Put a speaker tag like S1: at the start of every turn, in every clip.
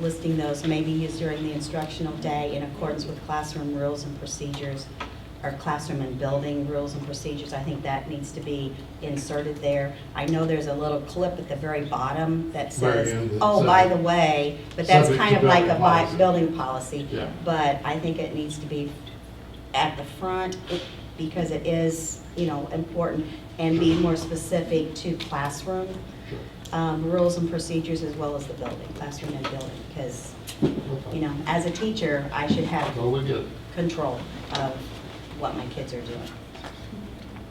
S1: listing those may be used during the instructional day in accordance with classroom rules and procedures, or classroom and building rules and procedures. I think that needs to be inserted there. I know there's a little clip at the very bottom that
S2: Very
S1: says,
S2: end,
S1: oh, by the
S2: subject-
S1: way, but that's
S2: subject
S1: kind
S2: to
S1: of like
S2: building
S1: a bi-
S2: policy.
S1: building policy.
S2: Yeah.
S1: But I think it needs to be at the front it- because it is, you know, important and be more specific to classroom
S2: Sure.
S1: um, rules and procedures as well as the building, classroom and building. Because,
S2: Okay.
S1: you know, as a teacher, I should
S2: No,
S1: have
S2: we get, it.
S1: control of what my kids are doing.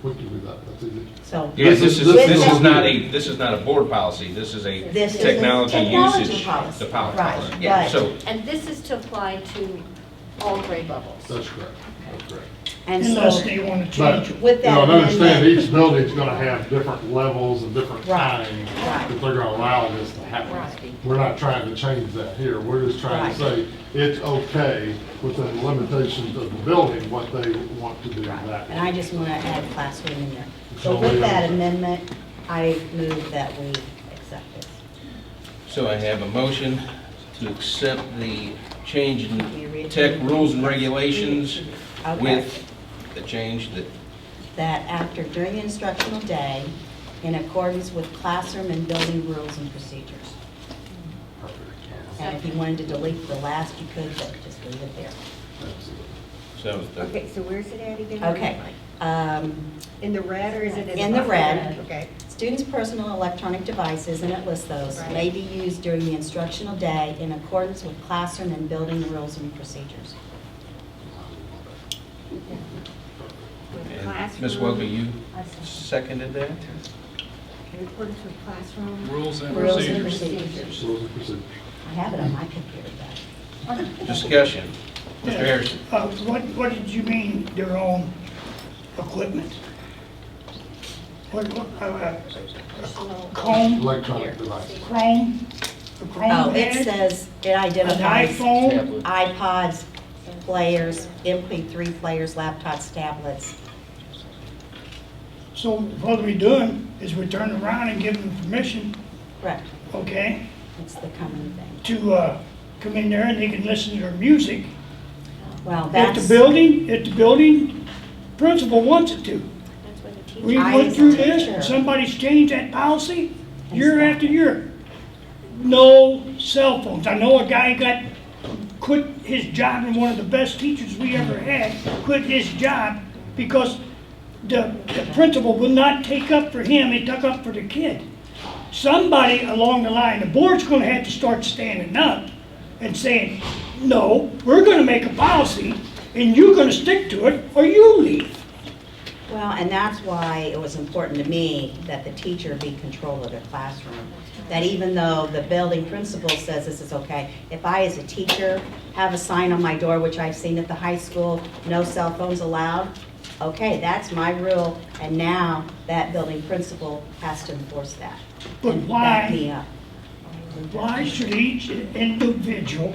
S2: we can do that, that's easy.
S1: So
S3: Yeah, this is, this is
S1: With-
S3: not a, this is not a board policy, this is a
S1: this is a
S3: technology
S1: technology
S3: usage.
S1: policy.
S3: The power
S1: Right,
S3: policy, yeah,
S1: right.
S3: so,
S4: And this is to apply to all grade levels.
S2: That's correct, that's correct.
S1: And
S5: Unless
S1: so,
S5: they want to
S2: But,
S5: change
S2: you
S5: it.
S1: With that
S2: know, and understand
S1: amendment-
S2: each building's gonna have different levels and different
S1: Right,
S2: times
S1: right.
S2: that they're gonna allow this to happen.
S4: Right.
S2: We're not trying to change that here, we're just trying to say,
S1: Right.
S2: it's okay within the limitations of the building, what they want to do in that.
S1: and I just want to add classroom in there. So
S2: So
S1: with
S2: we-
S1: that amendment, I move that we accept this.
S3: so I have a motion to accept the change
S1: You
S3: in
S1: read
S3: tech
S1: it.
S3: rules and regulations
S1: Okay.
S3: with the change that,
S1: that after during the instructional day, in accordance with classroom and building rules and procedures.
S2: Perfect.
S1: And if you wanted to delete the last, you could, but just leave it there.
S2: Absolutely.
S3: so the,
S6: Okay, so where's it at again?
S1: Okay. um,
S6: In the red or is it in?
S1: In the red.
S6: Okay.
S1: Students' personal electronic devices, and it lists those,
S4: Right.
S1: may be used during the instructional day in accordance with classroom and building rules and procedures.
S3: and Ms. Welker, you seconded that?
S6: In accordance with classroom.
S7: Rules and
S1: Rules and
S7: procedures.
S1: procedures.
S2: Rules and procedures.
S1: I have it on my computer, but
S3: Discussion, Mr. Harrison.
S5: Uh, What, what did you mean their own equipment? What, what, uh, uh, comb,
S2: Electronic devices.
S5: chrome, a
S1: Oh,
S5: chrome
S1: it
S5: head,
S1: says, it
S5: an
S1: identifies
S5: iPhone?
S1: iPods, players, MP3 players, laptops, tablets,
S5: So what we're doing is we're turning around and giving them permission,
S1: correct?
S5: okay,
S1: It's the common thing.
S5: to uh, come in there and they can listen to their music.
S1: Well,
S5: If
S1: that's,
S5: the building, if the building principal wants it to. We
S1: I
S5: went
S1: as a
S5: through this,
S1: teacher-
S5: and somebody's changed that policy year
S1: Yes.
S5: after year. No cell phones. I know a guy got, quit his job, and one of the best teachers we ever had quit his job because the, the principal would not take up for him, he took up for the kid. Somebody along the line, the board's gonna have to start standing up and saying, no, we're gonna make a policy, and you're gonna stick to it, or you leave.
S1: well, and that's why it was important to me that the teacher be in control of their classroom. That even though the building principal says this is okay, if I as a teacher have a sign on my door, which I've seen at the high school, no cell phones allowed, okay, that's my rule, and now that building principal has to enforce that.
S5: But
S1: and
S5: why?
S1: Back me up.
S5: Why should each individual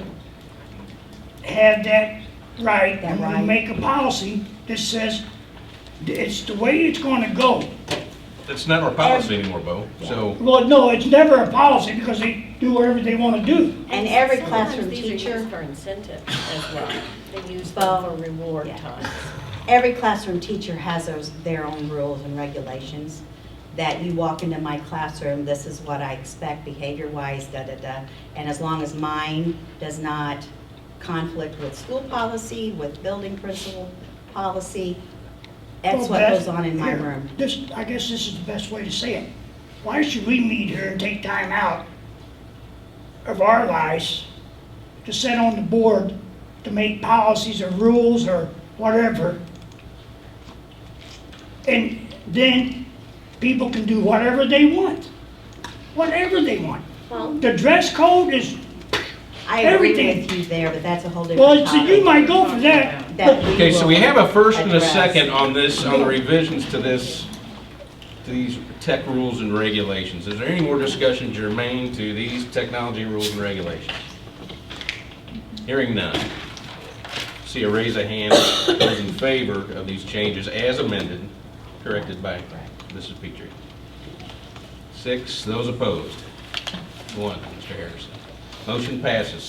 S5: have that right
S1: That
S5: and
S1: right.
S5: we make a policy that says it's the way it's gonna go?
S3: That's not our policy anymore, Bo, so,
S5: Well, no, it's never a policy because they do whatever they wanna do.
S1: And every
S4: sometimes
S1: classroom
S4: these are used
S1: teacher-
S4: For incentive as well. They use them for reward
S1: Yeah.
S4: times.
S1: Every classroom teacher has those- their own rules and regulations, that you walk into my classroom, this is what I expect behavior-wise, da-da-da. And as long as mine does not conflict with school policy, with building principal policy, that's
S5: Well,
S1: what
S5: Beth,
S1: goes on in my
S5: here,
S1: room.
S5: This, I guess this is the best way to say it. Why should we meet here and take time out of our lives to sit on the board to make policies or rules or whatever? And then people can do whatever they want, whatever they want.
S4: Well,
S5: The dress code is,
S1: I agree
S5: everything-
S1: with you there, but that's a whole different
S5: well, so
S1: topic.
S5: you might go for that,
S1: that
S5: but
S3: okay, so we
S1: will
S3: have a first and a
S1: address.
S3: second on this, on the revisions to this, to these tech rules and regulations. Is there any more discussion germane to these technology rules and regulations? Hearing none. See a raise of hand, those in favor of these changes as amended, corrected by Mrs. Petrie. Six, those opposed. One, Mr. Harrison. Motion passes,